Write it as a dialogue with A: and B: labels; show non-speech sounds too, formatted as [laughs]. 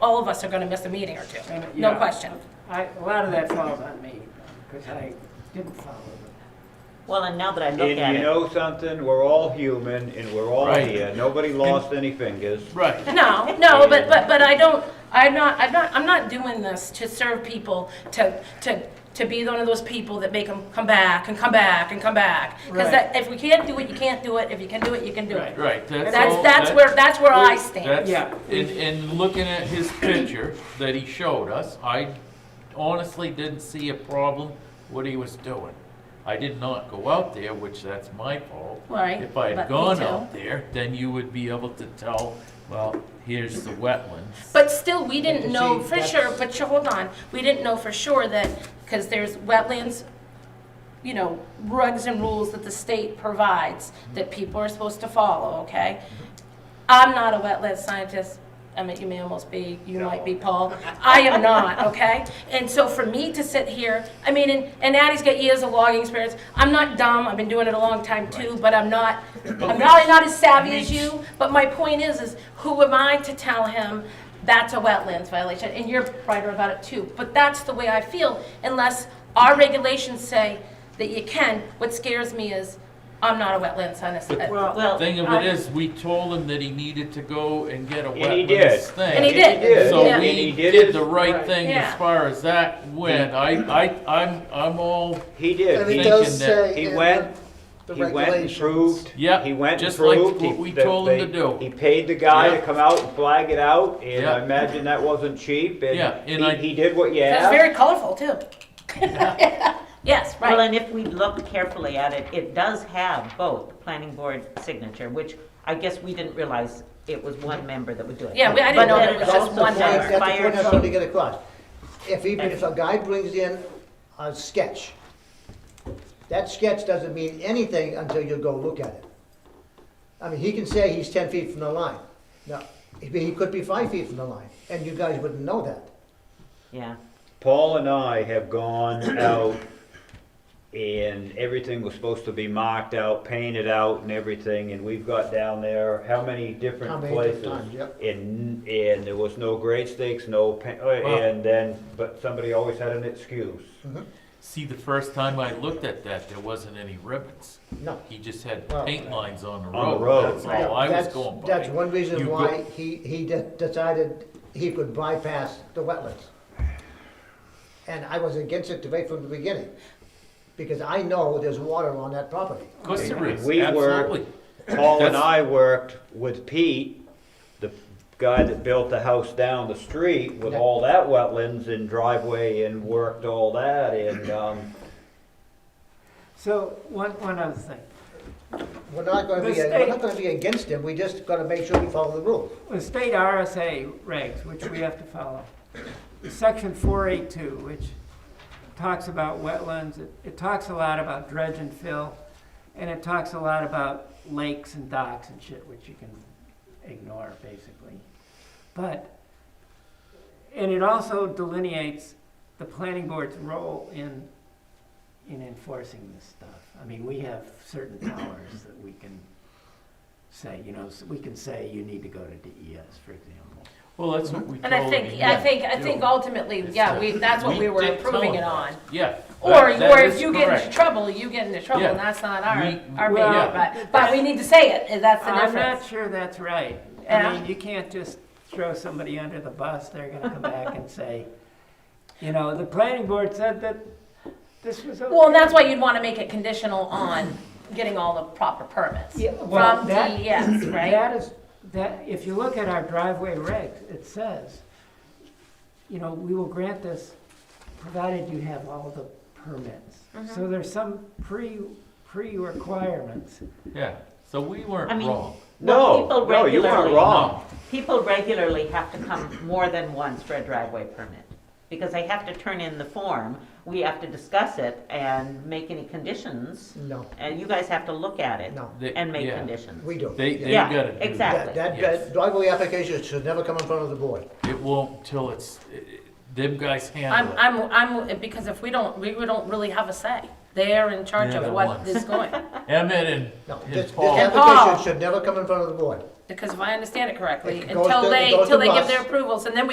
A: all of us are gonna miss a meeting or two,
B: And,
A: no
B: yeah,
A: question.
B: I, a lot of that falls on me, because I didn't follow it.
C: Well, and now that I look
D: And
C: at
D: you
C: it,
D: know something, we're all human and we're all
E: Right.
D: here, nobody lost any fingers.
E: Right.
A: No, no, but, but, but I don't, I'm not, I'm not, I'm not doing this to serve people, to, to, to be one of those people that make them come back and come back and come back. Because
B: Right.
A: that, if we can't do it, you can't do it, if you can do it, you can do it.
E: Right, that's
A: That's,
E: all-
A: that's
E: that-
A: where, that's where I stand.
E: That's,
B: Yeah.
E: and, and looking at his picture that he showed us, I honestly didn't see a problem what he was doing. I did not go out there, which that's my fault.
A: Right,
E: If I
A: but me
E: had gone
A: too.
E: out there, then you would be able to tell, well, here's the wetlands.
A: But still, we didn't
E: you
A: know
E: see,
A: for
E: that's-
A: sure, but you- hold on, we didn't know for sure that, because there's wetlands, you know, regs and rules that the state provides that people are supposed to follow, okay? I'm not a wetland scientist. I mean, you may almost be, you might be, Paul. I am not, okay? And so for me to sit here, I mean, and, and Addie's got years of logging experience. I'm not dumb. I've been doing it a long time too, but I'm not, I'm probably not as savvy as you. But my point is, is who am I to tell him that's a wetlands violation? And you're right about it too. But that's the way I feel unless our regulations say that you can. What scares me is I'm not a wetland scientist.
B: Well,
C: well,
E: Thing of
A: I-
E: it is, we told him that he needed to go and get a
D: And he did.
E: wetlands thing.
A: And he did.
E: So
A: Yeah.
D: And he
E: we
D: did
E: did
D: his-
E: the right thing
A: Yeah.
E: as far as that went. I, I, I'm, I'm all,
D: He
F: And it
D: did, he,
F: does
E: thinking that
F: say.
D: he
F: in
D: went,
F: the
D: he went and
F: regulations.
D: proved.
E: Yeah,
D: He went and
E: just like
D: proved.
E: what
D: he-
E: we
D: that
E: told him to
D: they-
E: do.
D: He paid the guy
E: Yeah.
D: to come out and flag it out, and
E: Yeah.
D: I imagine that wasn't cheap,
E: Yeah,
D: and
E: and I-
D: he, he did what you
A: That's
D: asked.
A: very colorful too. [laughs] Yes,
C: well,
A: right.
C: and if we look carefully at it, it does have both the planning board signature, which I guess we didn't realize it was one member that would do it.
A: Yeah, we- I didn't know that it was just one
C: But then
A: member.
C: it
F: That's the
C: also has
F: point I'm
C: fire
F: trying
C: chief.
F: to get across. If even if a guy brings in a sketch, that sketch doesn't mean anything until you go look at it. I mean, he can say he's ten feet from the line. Now, he he could be five feet from the line, and you guys wouldn't know that.
C: Yeah,
D: Paul and I have gone out and everything was supposed to be marked out, painted out and everything, and we've got down there, how many
F: How
D: different
F: many
D: places?
F: different times, yep.
D: And, and there was no grade stakes, no, pa- uh,
E: Wow.
D: and then, but somebody always had an excuse.
E: see, the first time I looked at that, there wasn't any ribbons.
F: No.
E: He just had
F: Well,
E: paint lines on the
D: On the
E: road, that's
D: road.
E: all Oh, I was
F: That's-
E: going by.
F: That's one
E: You
F: reason
E: go-
F: why he, he de- decided he could bypass the wetlands. And I was against it right from the beginning, because I know there's water on that property.
E: Of course there is,
D: We
E: absolutely.
D: worked,
F: Mm-hmm.
D: Paul and
E: That's-
D: I worked with Pete, the guy that built the house down the street with
F: Yeah.
D: all that wetlands and driveway and worked all that and, um,
B: so, one, one other thing.
F: We're not gonna be,
B: The
F: we're not gonna be against him, we just gotta make sure we follow the rules.
B: The state RSA regs, which we have to follow, section four eight two, which talks about wetlands, it, it talks a lot about dredge and fill, and it talks a lot about lakes and docks and shit, which you can ignore, basically. But, and it also delineates the planning board's role in, in enforcing this stuff. I mean, we have certain powers that we can say, you know, s- we can say you need to go to DES, for example.
E: Well, that's what we told him.
A: And I think,
E: he
A: I
E: had
A: think, I
E: to
A: think
E: do.
A: ultimately,
E: It's
A: yeah,
E: the-
A: we, that's what we were
E: did tell
A: approving
E: him
A: it on.
E: that. Yeah.
A: Or,
E: that- that
A: or if
E: is
A: you get into
E: correct.
A: trouble, you get into trouble,
E: Yeah.
A: and that's not our,
E: We-
A: our baby,
B: Well,
A: but, but we need to say it, and that's the
B: I'm not
A: difference.
B: sure that's right.
A: Yeah.
B: I mean, you can't just throw somebody under the bus, they're gonna come back and say, you know, the planning board said that this was okay.
A: Well, and that's why you'd wanna make it conditional on getting all the proper permits
B: Yeah, well,
A: from
B: that-
A: DES, right?
B: That is, that, if you look at our driveway regs, it says, you know, we will grant this provided you have all the permits.
A: Mm-hmm.
B: So there's some pre, pre-requirements.
E: Yeah, so we
C: I
E: weren't
C: mean-
E: wrong.
C: Well,
D: no,
C: people
D: no, you weren't
C: regularly-
D: wrong.
C: people regularly have to come more than once for a driveway permit, because they have to turn in the form, we have to discuss it and make any conditions,
F: No,
C: and you guys have to look at it
F: no,
E: They-
C: and make
E: yeah.
C: conditions.
F: we don't.
E: They, they
C: Yeah,
E: gotta do that.
C: exactly.
F: That, that-
E: Yes.
F: that driveway application should never come in front of the board.
E: It won't till it's, them guys
A: I'm,
E: handle it.
A: I'm, I'm, because if we don't, we we don't really have a say. They're in charge
E: They're
A: of
E: the
A: what
E: ones.
A: is going,
E: Emmett
F: No,
E: and,
F: this,
E: and
F: this
E: Paul,
A: Paul.
F: application should never come in front of the board.
A: because if I understand it correctly,
F: It goes
A: until
F: to- it
A: they,
F: goes
A: until
F: to
A: they give
F: us.
A: their approvals, and then we